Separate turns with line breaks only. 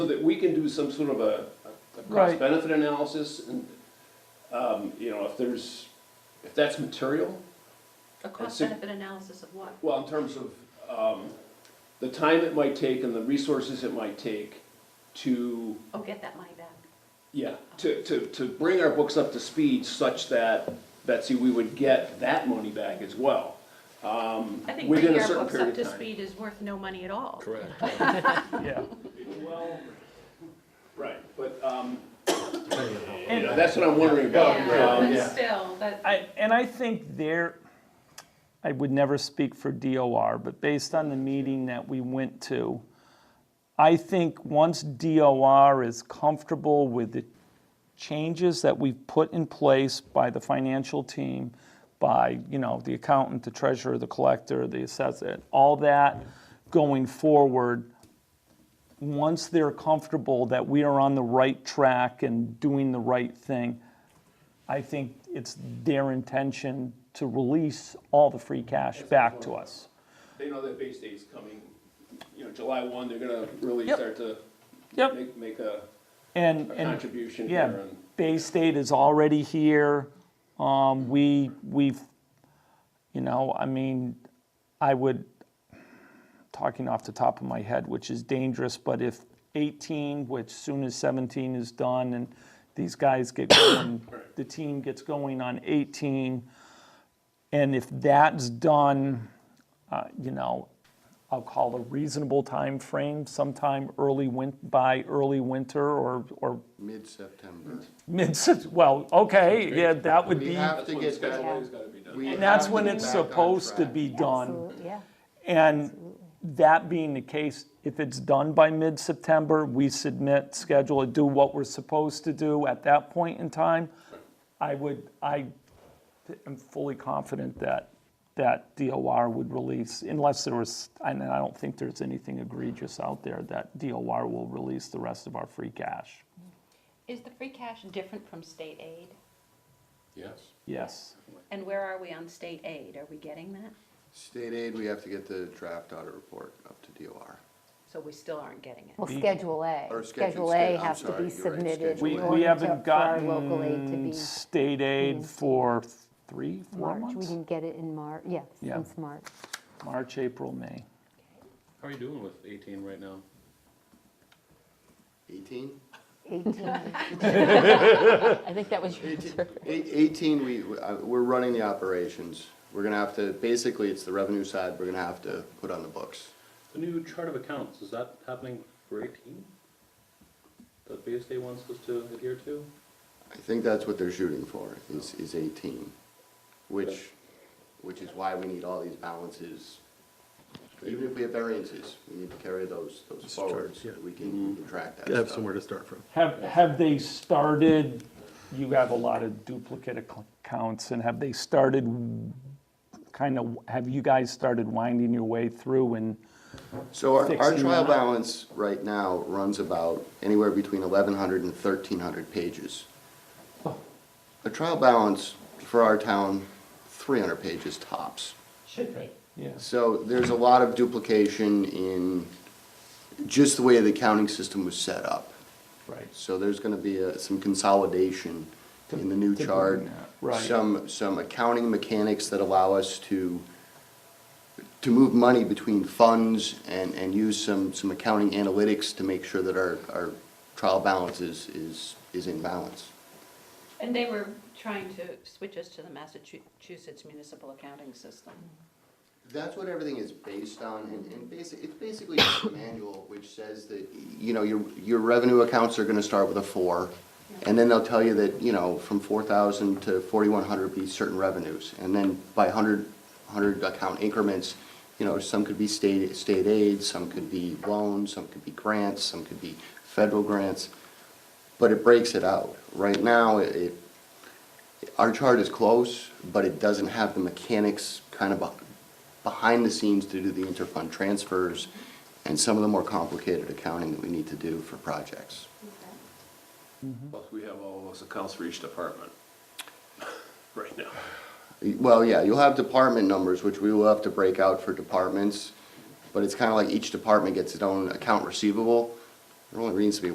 that we can do some sort of a, a cost
Right.
benefit analysis and, um, you know, if there's, if that's material,
A cost
sig-
benefit analysis of what?
well, in terms of, um, the time it might take and the resources it might take to,
Oh, get that money back.
yeah, to, to, to bring our books up to speed such that, Betsy, we would get that money back as well. Um,
I think
within
bringing
a
our
certain
books up
period
to
of time.
speed is worth no money at all.
Correct.
yeah.
Well, right, but, um, you
And-
know, that's what I'm wondering about. Um,
But still, that,
I, and I think there, I would never speak for DOR, but based on the meeting that we went to, I think once DOR is comfortable with the changes that we've put in place by the financial team, by, you know, the accountant, the treasurer, the collector, the assessor, all that going forward, once they're comfortable that we are on the right track and doing the right thing, I think it's their intention to release all the free cash back to us.
They know that base date's coming, you know, July one, they're gonna really
Yep.
start to
Yep.
make, make a
And,
a
and
contribution here
Yeah,
and.
Bay State is already here. Um, we, we've, you know, I mean, I would, talking off the top of my head, which is dangerous, but if 18, which soon as 17 is done and these guys get going, the team gets going on 18, and if that's done, uh, you know, I'll call a reasonable time frame, sometime early win, by early winter or, or
Mid-September.
mid well, okay, yeah, that would
We
be,
have
That's
to
when
get
schedule
that.
A's gotta be done.
we
and that's
have
when
get
it's
back on
supposed to
track.
be done.
Absolutely, yeah.
And that being the case, if it's done by mid-September, we submit, schedule, do what we're supposed to do at that point in time. I would, I am fully confident that, that DOR would release, unless there was, and I don't think there's anything egregious out there, that DOR will release the rest of our free cash.
is the free cash different from state aid?
Yes.
Yes.
And where are we on state aid? Are we getting that?
State aid, we have to get the draft audit report up to DOR.
So we still aren't getting it.
Well, Schedule
Or
A,
schedule
Schedule
state,
A
I'm
has to
sorry,
be
you're right,
submitted.
schedule
We,
in
A.
order
we
to-
haven't
for our local aid to
gotten
be
state aid for three, four
March, we
months?
didn't get it in March, yeah,
Yeah.
since March.
March, April, May.
How are you doing with eighteen right now?
Eighteen?
18,
I think that was your
Eighteen,
answer.
eight- 18, we, we- uh, we're running the operations. We're gonna have to, basically, it's the revenue side we're gonna have to put on the books.
The new chart of accounts, is that happening for eighteen? That BSA wants us to adhere to?
I think that's what they're shooting for, is, is eighteen, which, which is why we need all these balances. Even if we have variances, we need to carry those, those forward, so we can we can track that
Have
stuff.
somewhere to start from.
Have, have they started, you have a lot of duplicate ac- accounts, and have they started, kind of, have you guys started winding your way through and,
So our, our
fixing that
trial
up.
balance right now runs about anywhere between 1,100 and 1,300 pages. A trial balance for our town, 300 pages tops.
yes?
So there's a lot of duplication in just the way the accounting system was set up.
Right.
So there's gonna be uh, some consolidation in the new
to
chart.
bring that, right.
Some, some accounting mechanics that allow us to, to move money between funds and, and use some, some accounting analytics to make sure that our, our trial balance is, is, is in balance.
And they were trying to switch us to the Massachusetts municipal accounting system.
That's what everything is based on, and, and basic, it's basically just a manual which says that, you know, your, your revenue accounts are gonna start with a four. And then they'll tell you that, you know, from four thousand to forty-one hundred be certain revenues, and then by hundred, hundred account increments, you know, some could be state, state aid, some could be loans, some could be grants, some could be federal grants. But it breaks it out. Right now, it- it, our chart is close, but it doesn't have the mechanics kind of be- behind the scenes to do the interfund transfers and some of the more complicated accounting that we need to do for projects.
Mm-hmm.
Plus, we have all those accounts for each department right now.
Well, yeah, you'll have department numbers, which we will have to break out for departments, but it's kind of like each department gets its own account receivable. There only needs to be